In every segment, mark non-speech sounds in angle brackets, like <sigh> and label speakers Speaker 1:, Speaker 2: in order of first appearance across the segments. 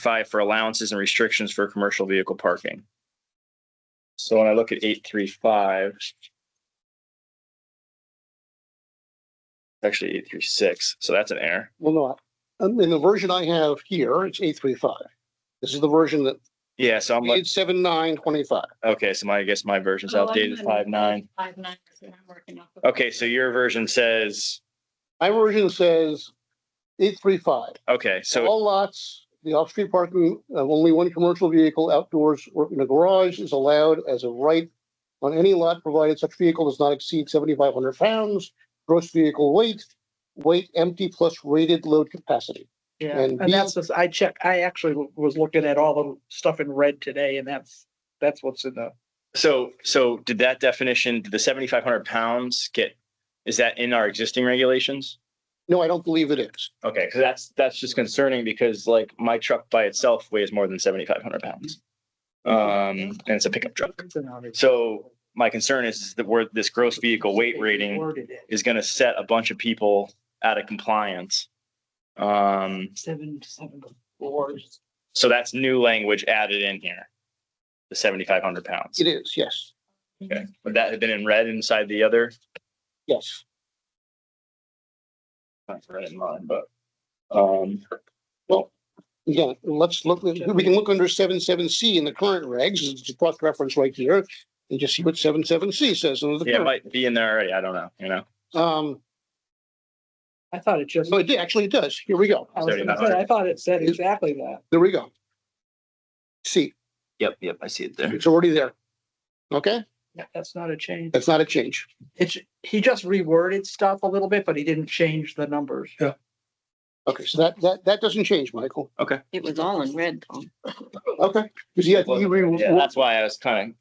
Speaker 1: five for allowances and restrictions for commercial vehicle parking. So when I look at eight, three, five. Actually, eight, three, six. So that's an error.
Speaker 2: Well, no, um, in the version I have here, it's eight three five. This is the version that
Speaker 1: Yeah, so I'm like,
Speaker 2: eight seven nine twenty five.
Speaker 1: okay, so my, I guess my version's
Speaker 3: Oh, I'm
Speaker 1: outdated,
Speaker 3: on
Speaker 1: five, nine.
Speaker 3: Five nine. is what I'm working off of.
Speaker 1: Okay, so your version says,
Speaker 2: My version says eight three five.
Speaker 1: okay, so,
Speaker 2: All lots, the off-street parking of only one commercial vehicle outdoors or in a garage is allowed as a right on any lot provided such vehicle does not exceed seventy-five hundred pounds, gross vehicle weight, weight empty plus rated load capacity.
Speaker 4: Yeah,
Speaker 2: And
Speaker 4: and that's, what's- I check, I actually w- was looking at all the stuff in red today and that's, that's what's in the,
Speaker 1: so, so did that definition, did the seventy-five hundred pounds get, is that in our existing regulations?
Speaker 2: No, I don't believe it is.
Speaker 1: Okay, because that's, that's just concerning because like my truck by itself weighs more than seventy-five hundred pounds. Um, and it's a pickup truck.
Speaker 4: It's in our-
Speaker 1: So my concern is that where this gross vehicle weight rating
Speaker 4: Worded it.
Speaker 1: is gonna set a bunch of people out of compliance. Um,
Speaker 4: Seven, seven, four.
Speaker 1: so that's new language added in here. The seventy-five hundred pounds.
Speaker 2: It is, yes,
Speaker 1: Okay, would that have been in red inside the other?
Speaker 2: yes.
Speaker 1: Not red in mine, but, um,
Speaker 2: Yeah, let's look, we can look under seven, seven C in the current regs, it's a cross-reference right here, and just see what seven, seven C says. under the
Speaker 1: yeah, it
Speaker 2: current.
Speaker 1: might be in there already. I don't know, you know?
Speaker 2: Um,
Speaker 4: I thought it just,
Speaker 2: no, it actually does. Here we go.
Speaker 4: I was gonna say, I thought it said exactly that.
Speaker 2: There we go. See,
Speaker 1: Yep, yep, I see it there.
Speaker 2: it's already there. Okay,
Speaker 4: Yeah, That's not a change.
Speaker 2: that's not a change.
Speaker 4: It's, he just reworded stuff a little bit, but he didn't change the numbers.
Speaker 2: Okay, so that, that, that doesn't change, Michael.
Speaker 3: It was all in red, Tom.
Speaker 2: Okay, because yeah, you
Speaker 1: Yeah,
Speaker 2: re,
Speaker 1: that's why I was kind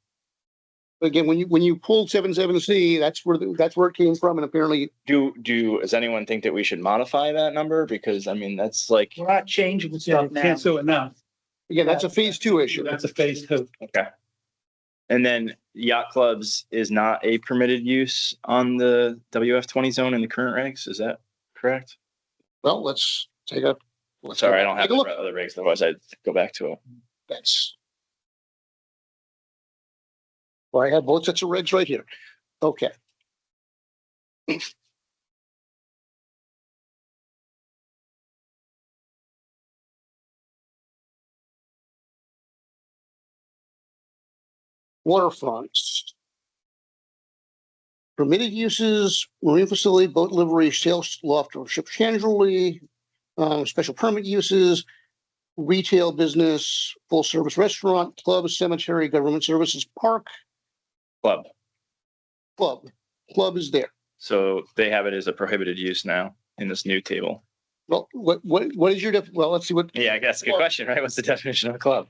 Speaker 2: again, when you, when you pulled seven, seven C, that's where, the- that's where it came from, and apparently,
Speaker 1: of, do, do, does anyone think that we should modify that number? Because I mean, that's like,
Speaker 4: We're not changing
Speaker 5: Yeah,
Speaker 4: stuff
Speaker 5: you
Speaker 4: now.
Speaker 5: can't sue it now.
Speaker 2: again, that's a phase two issue.
Speaker 5: That's a phase two.
Speaker 1: okay. And then yacht clubs is not a permitted use on the WF twenty zone in the current regs, is that correct?
Speaker 2: Well, let's take a. let's
Speaker 1: Sorry, I don't have
Speaker 2: take
Speaker 1: the
Speaker 2: a look.
Speaker 1: other regs, otherwise I'd go back to it.
Speaker 2: That's. Well, I have both sets of regs right here. Okay. <clears throat> Waterfronts. Permitted uses, marine facility, boat livery, sales loft or ship chandlery, um, special permit uses, retail business, full service restaurant, club, cemetery, government services, park,
Speaker 1: Club,
Speaker 2: club. Club is there.
Speaker 1: so they have it as a prohibited use now in this new table.
Speaker 2: Well, what, what, what is your, def- well, let's see what,
Speaker 1: Yeah, I guess, good
Speaker 2: Club.
Speaker 1: question, right? What's the definition of a club?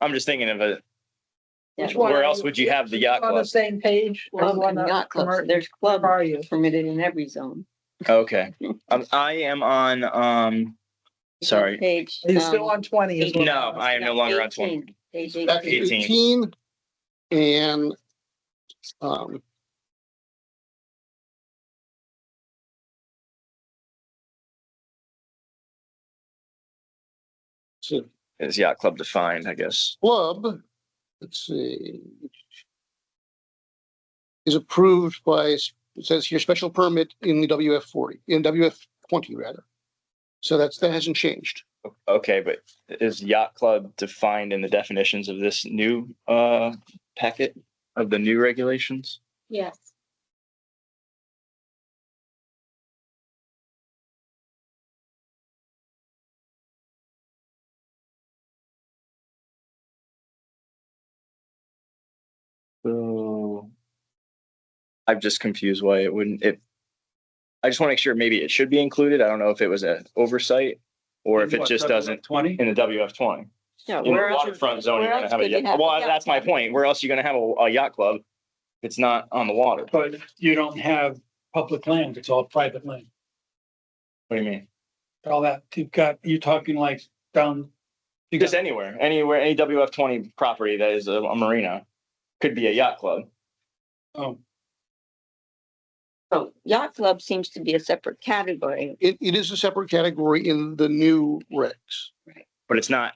Speaker 1: I'm just thinking of a,
Speaker 3: Yeah.
Speaker 4: Which one
Speaker 1: where
Speaker 4: are
Speaker 1: else
Speaker 4: you-
Speaker 1: would you have the yacht
Speaker 4: On the
Speaker 1: club?
Speaker 4: same page. or
Speaker 3: Club
Speaker 4: you
Speaker 3: and
Speaker 4: wanna-
Speaker 3: yacht clubs.
Speaker 4: commer-
Speaker 3: There's club
Speaker 4: Where are you?
Speaker 3: permitted in every zone.
Speaker 1: Okay, um, I am on, um,
Speaker 3: <laughs>
Speaker 1: sorry,
Speaker 3: Page.
Speaker 4: Are you still
Speaker 3: um,
Speaker 4: on twenty? is what-
Speaker 1: No, I am no longer on 20.
Speaker 3: 18, Page
Speaker 2: that's
Speaker 3: eighteen.
Speaker 1: Eighteen.
Speaker 2: eighteen. And, um. So
Speaker 1: is yacht club defined, I guess.
Speaker 2: club, let's see. Is approved by, it says here, special permit in the WF forty, in WF twenty rather. So that's, that hasn't changed.
Speaker 1: Okay, but is yacht club defined in the definitions of this new uh packet of the new regulations?
Speaker 3: Yes.
Speaker 1: So. I'm just confused why it wouldn't, it. I just want to make sure maybe it should be included. I don't know if it was an oversight or if it just doesn't
Speaker 5: Twenty?
Speaker 1: in the WF twenty.
Speaker 3: No,
Speaker 1: In
Speaker 3: where
Speaker 1: the
Speaker 3: else?
Speaker 1: waterfront zone, you're
Speaker 3: where
Speaker 1: gonna
Speaker 3: else
Speaker 1: have a,
Speaker 3: would you
Speaker 1: yacht-
Speaker 3: have a
Speaker 1: well,
Speaker 3: yacht
Speaker 1: that's my
Speaker 3: club?
Speaker 1: point. Where else are you gonna have a a yacht club? If it's not on the water.
Speaker 5: But you don't have public land, it's all private land.
Speaker 1: What do you mean?
Speaker 5: All that, you've got, you're talking like down. you
Speaker 1: Just
Speaker 5: got-
Speaker 1: anywhere, anywhere, any WF twenty property that is a a marina could be a yacht club.
Speaker 5: oh,
Speaker 3: So yacht club seems to be a separate category.
Speaker 2: It, it is a separate category in the new regs.
Speaker 1: but it's not